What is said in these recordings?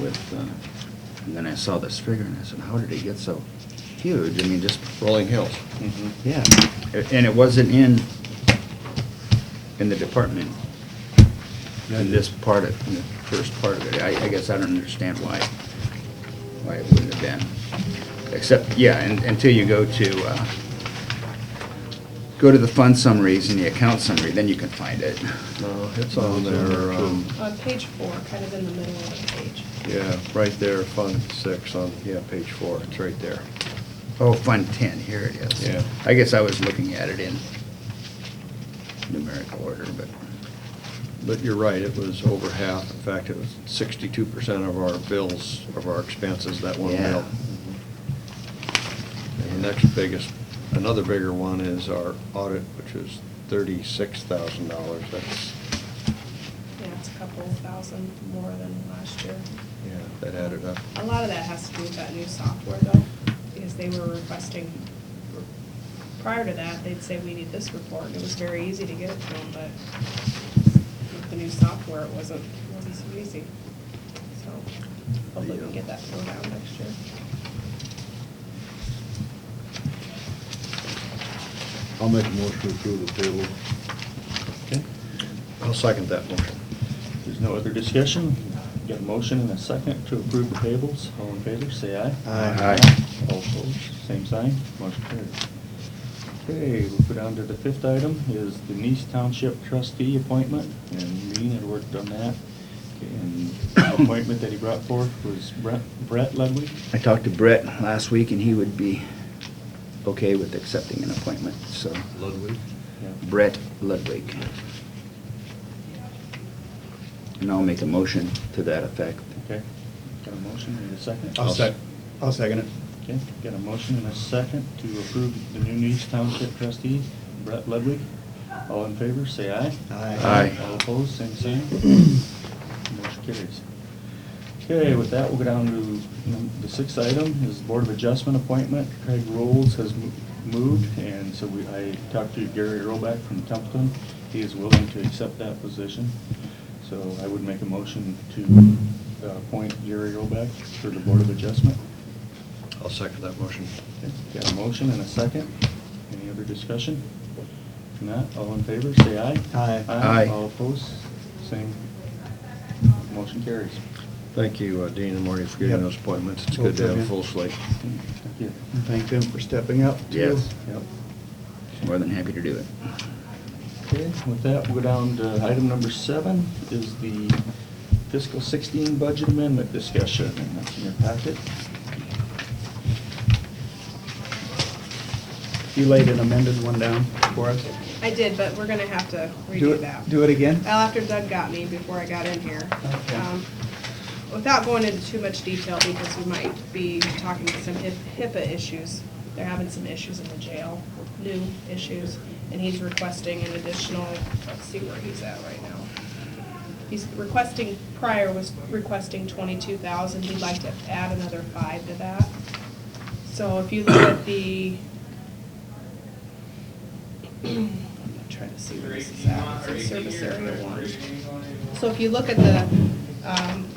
uh, And then I saw this figure and I said, how did it get so huge? I mean, just rolling hills. Mm-hmm. Yeah, A- and it wasn't in, in the department, in this part of, in the first part of it. I, I guess I don't understand why, why it wouldn't have been. Except, yeah, and- until you go to, uh, go to the fund summaries and the account summary, then you can find it. No, Uh, it's on there, um, On page four, kind of in the middle of the page. yeah, right there, Fund Six on, yeah, page four, it's right there. Oh, Fund 10, here it is. Yeah. I guess I was looking at it in numerical order, but, But you're right, it was over half, in fact, it was sixty-two percent of our bills, of our expenses, that one Yeah. bill. And the next biggest, another bigger one is our audit, which is thirty-six thousand dollars, that's, Yeah, it's a couple thousand more than last year. yeah, that added up. A lot of that has to do with that new software though, because they were requesting, prior to that, they'd say, we need this report, and it was very easy to get it to them, but with the new software, it wasn't, wasn't so easy. So hopefully we can get that filled out next year. I'll make a motion to approve the payroll. Okay, I'll second that motion. if there's no other discussion. Got a motion and a second to approve the tables. All in favor, say aye. Aye. All opposed, same sign, motion carried. Okay, we'll go down to the fifth item, is the Nice Township trustee appointment, and Lean had worked on that. And the appointment that he brought forth was Brett, Brett Ludwig. I talked to Brett last week, and he would be okay with accepting an appointment, so. Ludwig? Brett Ludwig. And I'll make a motion to that effect. Okay, got a motion and a second? I'll sec- I'll second it. Okay, got a motion and a second to approve the new Nice Township trustee, Brett Ludwig. All in favor, say aye. Aye. Aye. All opposed, same sign. Motion carries. Okay, with that, we'll go down to num- the sixth item, is Board of Adjustment appointment. Craig Rolls has mo- moved, and so we, I talked to Gary Roback from Templeton. He is willing to accept that position. So I would make a motion to uh, appoint Gary Roback for the Board of Adjustment. I'll second that motion. Okay, Got a motion and a second. Any other discussion? If not, all in favor, say aye. Aye. Aye. All opposed, same. Motion carries. Thank you, uh, Dean and Marty, for getting those appointments. It's good to have a full slate. Thank you. Thank them for stepping up too. Yes, Yep. more than happy to do it. Okay, with that, we'll go down to item number seven, is the fiscal sixteen budget amendment discussion, and that's in your packet. You laid an amended one down for us. I did, but we're gonna have to Do redo that. it, do it again? Well, after Doug got me before I got in here. Okay. Um, Without going into too much detail, because we might be talking about some hip- HIPAA issues. They're having some issues in the jail, new issues, and he's requesting an additional, let's see where he's at right now. He's requesting, prior was requesting twenty-two thousand, he'd like to add another five to that. So if you look at the I'm trying to see where this is at, it's in service area one. So if you look at the, um,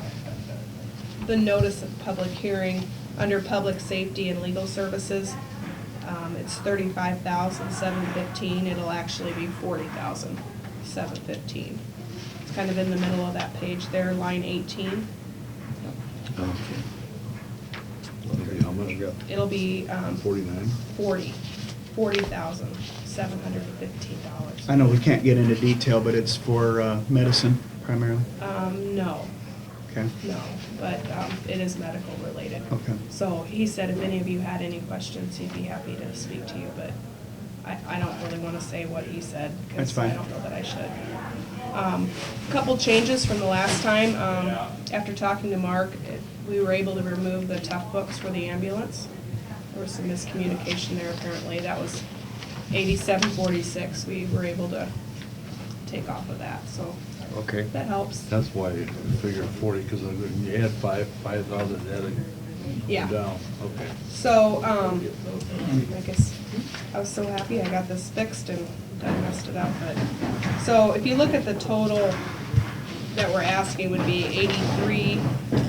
the notice of public hearing, under public safety and legal services, um, it's thirty-five thousand, seven fifteen, it'll actually be forty thousand, seven fifteen. It's kind of in the middle of that page there, line eighteen. Um, Okay, how much? It'll be, um, Forty-nine? forty, forty thousand, seven hundred and fifteen dollars. I know we can't get into detail, but it's for uh, medicine primarily. Um, no, Okay. No, but um, it is medical related. Okay. So he said if any of you had any questions, he'd be happy to speak to you, but I, I don't really want to say what he said. 'cause That's fine. I don't know that I should. Um, Couple changes from the last time. Um, After talking to Mark, it- we were able to remove the tough books for the ambulance. There was some miscommunication there apparently. That was eighty-seven forty-six. We were able to take off of that, so Okay. that helps. That's why I figured forty, because you had five, five thousand added. Yeah. Down, okay. So, um, I guess, I was so happy I got this fixed and I messed it up, but, so if you look at the total that we're asking would be eighty-three,